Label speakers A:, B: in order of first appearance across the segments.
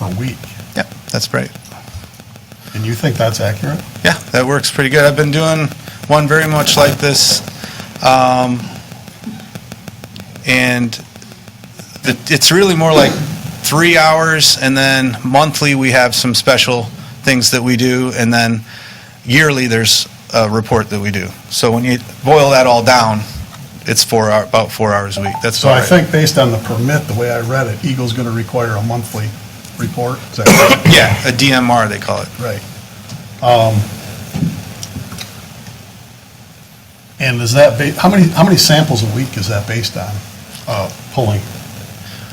A: a week.
B: Yeah, that's great.
A: And you think that's accurate?
B: Yeah, that works pretty good. I've been doing one very much like this. um, And the- it's really more like three hours, and then monthly, we have some special things that we do, and then yearly, there's a report that we do. So when you boil that all down, it's four, hour- about four hours a week. That's
A: So
B: all
A: I
B: right.
A: think based on the permit, the way I read it, Eagle's going to require a monthly report. Is that
B: Yeah, a DMR, they call it.
A: right? Um, And is that, ba- how many, how many samples a week is that based on uh, pulling?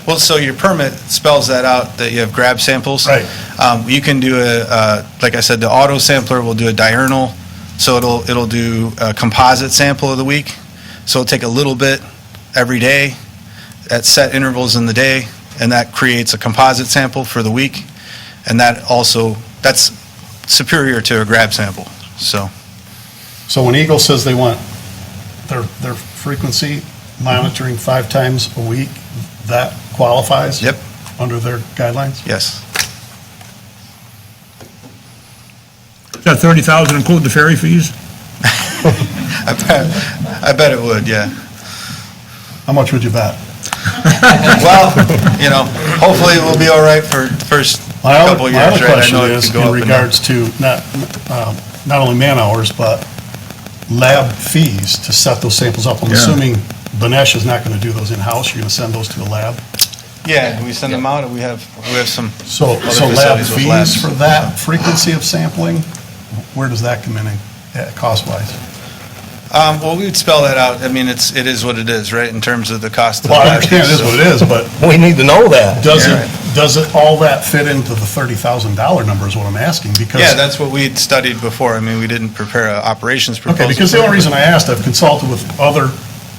B: Well, so your permit spells that out, that you have grab samples.
A: Right.
B: Um, You can do a, uh, like I said, the auto sampler will do a diurnal, so it'll, it'll do a composite sample of the week. So it'll take a little bit every day at set intervals in the day, and that creates a composite sample for the week. And that also, that's superior to a grab sample, so.
A: So when Eagle says they want their, their frequency monitoring five times a week, that qualifies?
B: Yep.
A: Under their guidelines?
B: Yes.
C: That 30,000 include the ferry fees?
B: I bet, I bet it would, yeah.
A: How much would you bet?
B: Well, you know, hopefully we'll be all right for the first
A: My other-
B: couple
A: my
B: years, right?
A: other
B: I
A: question
B: know it
A: is
B: could go
A: in
B: up and down.
A: regards to not, um, not only man-hours, but lab fees to set those samples up. I'm
C: Yeah.
A: assuming Banesh is not going to do those in-house, you're going to send those to a lab?
B: Yeah, we send them out, and we have, we have some,
A: So,
B: Other
A: so lab
B: facilities with labs.
A: fees for that frequency of sampling, where does that come in, uh, cost-wise?
B: um, well, we would spell that out. I mean, it's, it is what it is, right, in terms of the cost of the
A: Well, I
B: lab
A: understand it
B: fees,
A: is what it is, but
D: We need to know that.
A: Does
B: Yeah.
A: it, does it, all that fit into the $30,000 number is what I'm asking,
B: so-
A: because.
B: Yeah, that's what we'd studied before. I mean, we didn't prepare an operations proposal.
A: Okay, because the only reason I asked, I've consulted with other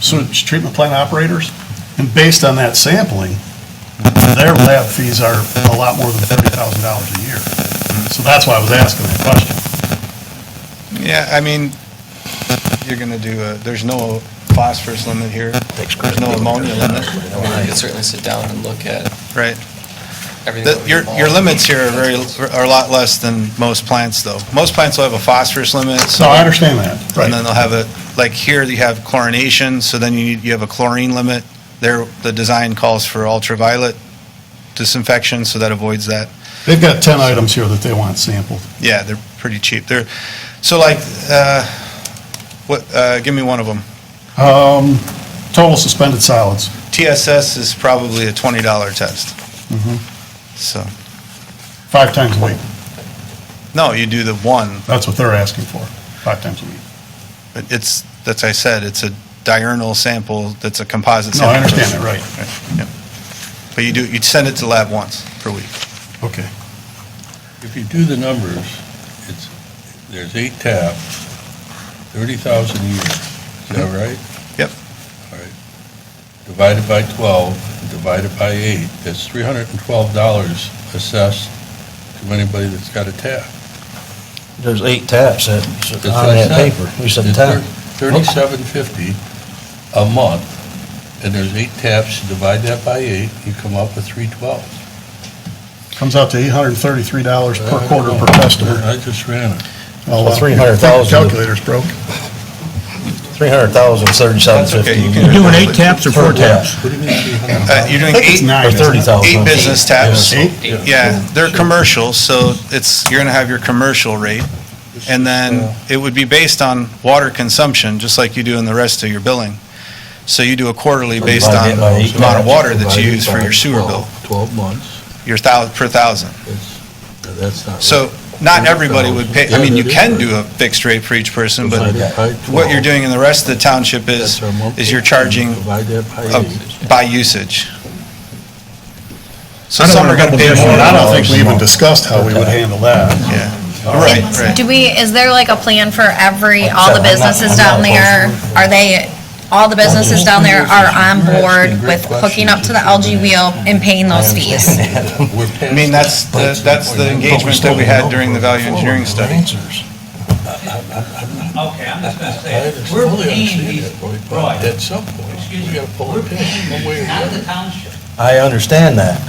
A: sewage treatment plant operators, and based on that sampling, their lab fees are a lot more than $30,000 a year. So that's why I was asking that question.
B: Yeah, I mean, you're gonna do, a- there's no phosphorus limit here, there's no ammonia limit,
E: I could certainly sit down and look at
B: right?
E: everything.
B: The-
E: that was
B: Your, your
E: involved.
B: limits here are very, are a lot less than most plants, though. Most plants will have a phosphorus limit,
A: So
B: so.
A: I understand that,
B: And then
A: right?
B: they'll have a, like here, you have chlorination, so then you, need- you have a chlorine limit. There, the design calls for ultraviolet disinfection, so that avoids that.
A: They've got 10 items here that they want sampled.
B: Yeah, they're pretty cheap. They're, so like, uh, what, uh, give me one of them.
A: Um, Total suspended solids.
B: TSS is probably a twenty dollar test.
A: Mm-hmm.
B: So,
A: Five times a week,
B: no, you do the one,
A: that's what they're asking for, five times a week.
B: but it's, that's I said, it's a diurnal sample, that's a composite
A: No,
B: sample.
A: I understand that, right,
B: Yep. But you do, you send it to lab once per week.
A: okay.
F: If you do the numbers, it's, there's eight taps, 30,000 a year, is that right?
B: Mm-hmm. Yep.
F: All right. Divided by 12, divided by eight, that's $312 assessed to anybody that's got a tap.
D: There's eight taps that,
F: That's
D: on
F: what I
D: that
F: said.
D: paper. You said
F: It's
D: tap.
F: thir- 3750 a month, and there's eight taps, you divide that by eight, you come up with 312.
A: Comes out to $833 per quarter per customer.
F: I just ran it.
A: Well, uh,
D: So 300,000.
A: Calculator's broke.
D: Three hundred thousand, thirty-seven
B: That's okay, you can-
C: You're
D: fifty.
C: doing eight taps or four taps?
F: What do you mean 300?
B: Uh, You're doing
A: I think
B: eight,
A: it's nine.
D: Or
A: isn't it?
D: thirty thousand.
B: eight business taps.
A: Eight?
B: Yeah, they're commercials, so it's, you're going to have your commercial rate, and then it would be based on water consumption, just like you do in the rest of your billing. So you do a quarterly based on
D: Divided by eight
B: the amount of
D: taps,
B: water that you
F: Divided
B: use for
F: by
B: your sewer bill,
F: 12 12 months,
B: your thou, per thousand.
F: that's, that's not.
B: So not everybody would pay, I
F: Yeah,
B: mean, you
F: that is
B: can
F: right.
B: do a fixed rate for each person, but
F: Divided by
B: what you're
F: 12,
B: doing in the rest of the township is,
F: that's our monthly,
B: is you're charging
F: divide that by
B: of-
F: eight.
B: by usage. So
C: I don't
B: some
C: wanna
B: are going to pay
C: double
B: more.
A: And
C: dip
A: I don't think we
D: Dollars a
A: even
D: month.
A: discussed how we would handle that.
B: Yeah, right, right.
G: Do we, is there like a plan for every, all
D: I'm
G: the
D: not-
G: businesses
D: I'm not
G: down there?
D: opposed to it.
G: Are they, all the businesses down there are on board with hooking up to the algae wheel and paying those fees?
F: We're past
B: I mean, that's,
F: that.
B: the- that's the engagement that we had during the value engineering study.
H: Okay, I'm just gonna
F: I
H: say,
F: just
H: we're
F: totally
H: paying
F: understand
H: these,
F: that point, but
H: right,
F: at some point,
H: excuse
F: we
H: me,
F: gotta pull
H: we're
F: it in, one way or
H: paying
F: the
H: out
F: other.
H: of the township.
D: I understand that.